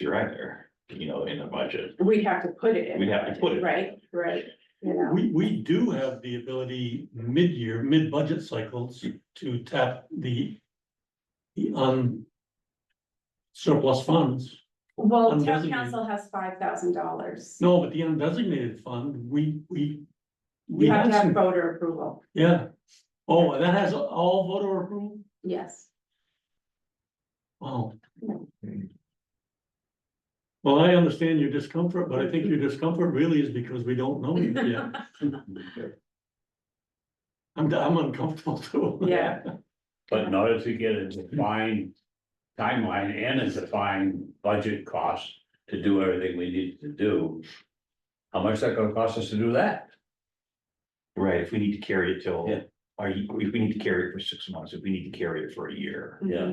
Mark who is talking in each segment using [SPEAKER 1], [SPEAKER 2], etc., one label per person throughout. [SPEAKER 1] year either, you know, in the budget.
[SPEAKER 2] We'd have to put it in.
[SPEAKER 1] We'd have to put it.
[SPEAKER 2] Right, right, you know,
[SPEAKER 3] We, we do have the ability mid-year, mid-budget cycles to tap the. The un. Surplus funds.
[SPEAKER 2] well, town
[SPEAKER 3] Undesignated.
[SPEAKER 2] council has five thousand dollars.
[SPEAKER 3] No, but the undesignated fund, we, we. We
[SPEAKER 2] You have
[SPEAKER 3] have
[SPEAKER 2] to have
[SPEAKER 3] some,
[SPEAKER 2] voter approval,
[SPEAKER 3] yeah. Oh, and that has all voter approval?
[SPEAKER 2] yes.
[SPEAKER 3] Wow.
[SPEAKER 1] Hmm.
[SPEAKER 3] Well, I understand your discomfort, but I think your discomfort really is because we don't know you yet. I'm, I'm uncomfortable too.
[SPEAKER 2] Yeah.
[SPEAKER 4] But in order to get a defined timeline and a defined budget cost to do everything we need to do. How much that gonna cost us to do that?
[SPEAKER 1] Right, if we need to carry it till,
[SPEAKER 4] Yeah.
[SPEAKER 1] are you, if we need to carry it for six months, if we need to carry it for a year.
[SPEAKER 2] Mm-hmm.
[SPEAKER 4] Yeah.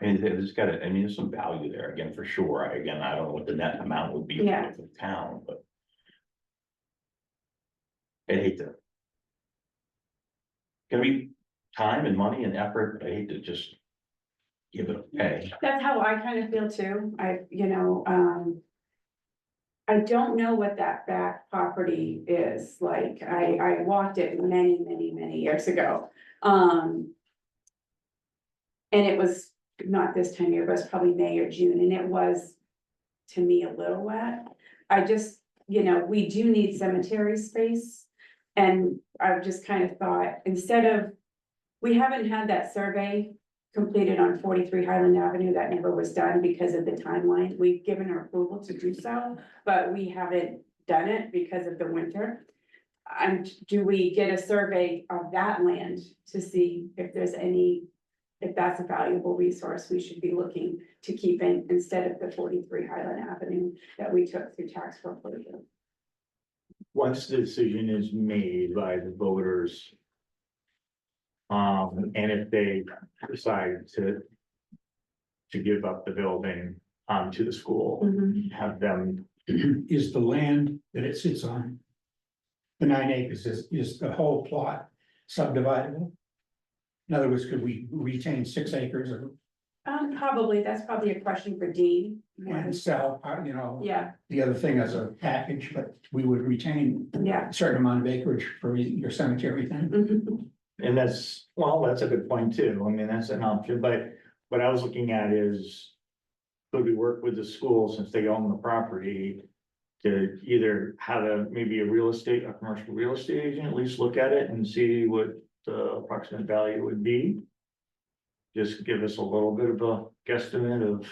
[SPEAKER 1] I mean, there's gotta, I mean, there's some value there, again, for sure, I, again, I don't know what the net amount would be for
[SPEAKER 2] Yeah.
[SPEAKER 1] the town, but. I'd hate to. Gonna be time and money and effort, I hate to just. Give it away,
[SPEAKER 2] That's how I kind of feel too, I, you know, um. I don't know what that back property is, like, I, I walked it many, many, many years ago, um. And it was not this time of year, but it was probably May or June, and it was, to me, a little wet. I just, you know, we do need cemetery space, and I've just kind of thought, instead of. We haven't had that survey completed on forty-three Highland Avenue, that never was done because of the timeline, we've given our approval to do so, but we haven't done it because of the winter. And do we get a survey of that land to see if there's any, if that's a valuable resource we should be looking to keep in, instead of the forty-three Highland Avenue that we took through tax foreclosure?
[SPEAKER 5] once the decision is made by the voters. Um, and if they decide to. To give up the building um to the school, have them,
[SPEAKER 6] is the land that it sits on. The nine acres is, is the whole plot subdividable? In other words, could we retain six acres of
[SPEAKER 2] Um, probably, that's probably a question for Dean.
[SPEAKER 6] and sell, uh, you know,
[SPEAKER 2] Yeah,
[SPEAKER 6] the other thing as a package, but we would retain
[SPEAKER 2] yeah.
[SPEAKER 6] a certain amount of acreage for your cemetery thing?
[SPEAKER 2] Mhm.
[SPEAKER 5] and that's, well, that's a good point too, I mean, that's an option, but what I was looking at is. Could we work with the school since they own the property? To either have a, maybe a real estate, a commercial real estate agent, at least look at it and see what the approximate value would be. Just give us a little bit of a guesstimate of.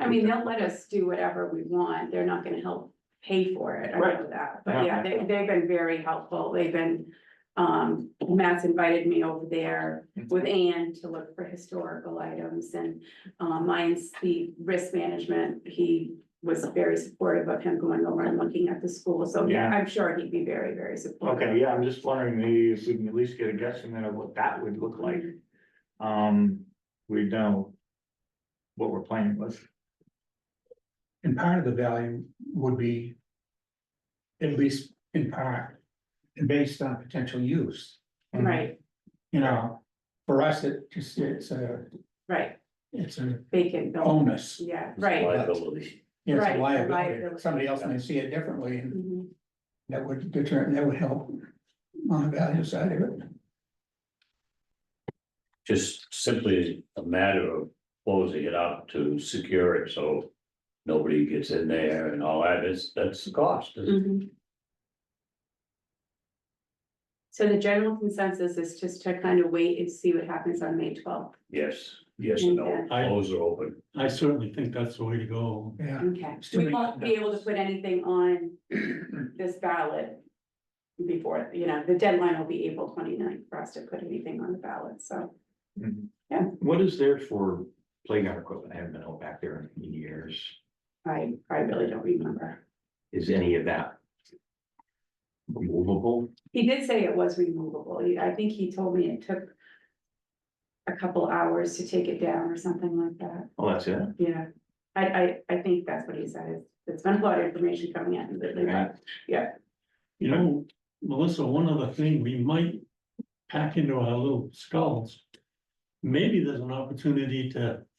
[SPEAKER 2] I mean, they'll let us do whatever we want, they're not gonna help pay for it, I know that, but yeah, they, they've been very helpful, they've been. Um, Matt's invited me over there with Ann to look for historical items and, um, mine's the risk management, he. Was very supportive of him going over and looking at the school, so yeah,
[SPEAKER 5] Yeah.
[SPEAKER 2] I'm sure he'd be very, very supportive.
[SPEAKER 5] Okay, yeah, I'm just wondering maybe if we can at least get a guesstimate of what that would look like. Um, we know what we're playing with.
[SPEAKER 6] And part of the value would be. At least in part, based on potential use,
[SPEAKER 2] Right,
[SPEAKER 6] you know, for us, it just, it's a,
[SPEAKER 2] right,
[SPEAKER 6] it's a
[SPEAKER 2] vacant building,
[SPEAKER 6] bonus.
[SPEAKER 2] yeah, Oh. right.
[SPEAKER 4] Liability.
[SPEAKER 6] Yeah,
[SPEAKER 2] Right,
[SPEAKER 6] it's a
[SPEAKER 2] a
[SPEAKER 6] liability,
[SPEAKER 2] liability.
[SPEAKER 6] somebody else may see it differently, and
[SPEAKER 2] Mhm.
[SPEAKER 6] that would determine, that would help on the value side of it.
[SPEAKER 4] Just simply a matter of closing it up to secure it, so. Nobody gets in there and all that, it's, that's the cost.
[SPEAKER 2] Mhm. So the general consensus is just to kind of wait and see what happens on May twelfth.
[SPEAKER 4] Yes, yes and no,
[SPEAKER 3] I-
[SPEAKER 4] those are open.
[SPEAKER 3] I certainly think that's the way to go.
[SPEAKER 6] Yeah,
[SPEAKER 2] Okay.
[SPEAKER 6] It's too
[SPEAKER 2] We
[SPEAKER 6] many
[SPEAKER 2] won't be able to
[SPEAKER 6] unknowns.
[SPEAKER 2] put anything on this ballot before, you know, the deadline will be April 29th for us to put anything on the ballot, so.
[SPEAKER 1] Mm-hmm. what is there for playground equipment, I haven't been out back there in years,
[SPEAKER 2] I, I really don't remember.
[SPEAKER 1] is any of that? Movable,
[SPEAKER 2] He did say it was removable. He- I think he told me it took a couple hours to take it down or something like that.
[SPEAKER 1] oh, that's it,
[SPEAKER 2] Yeah, I, I, I think that's what he said, it's been a lot of information coming out lately,
[SPEAKER 1] Right.
[SPEAKER 2] but, yeah,
[SPEAKER 3] You know, Melissa, one other thing we might pack into our little skulls. Maybe there's an opportunity to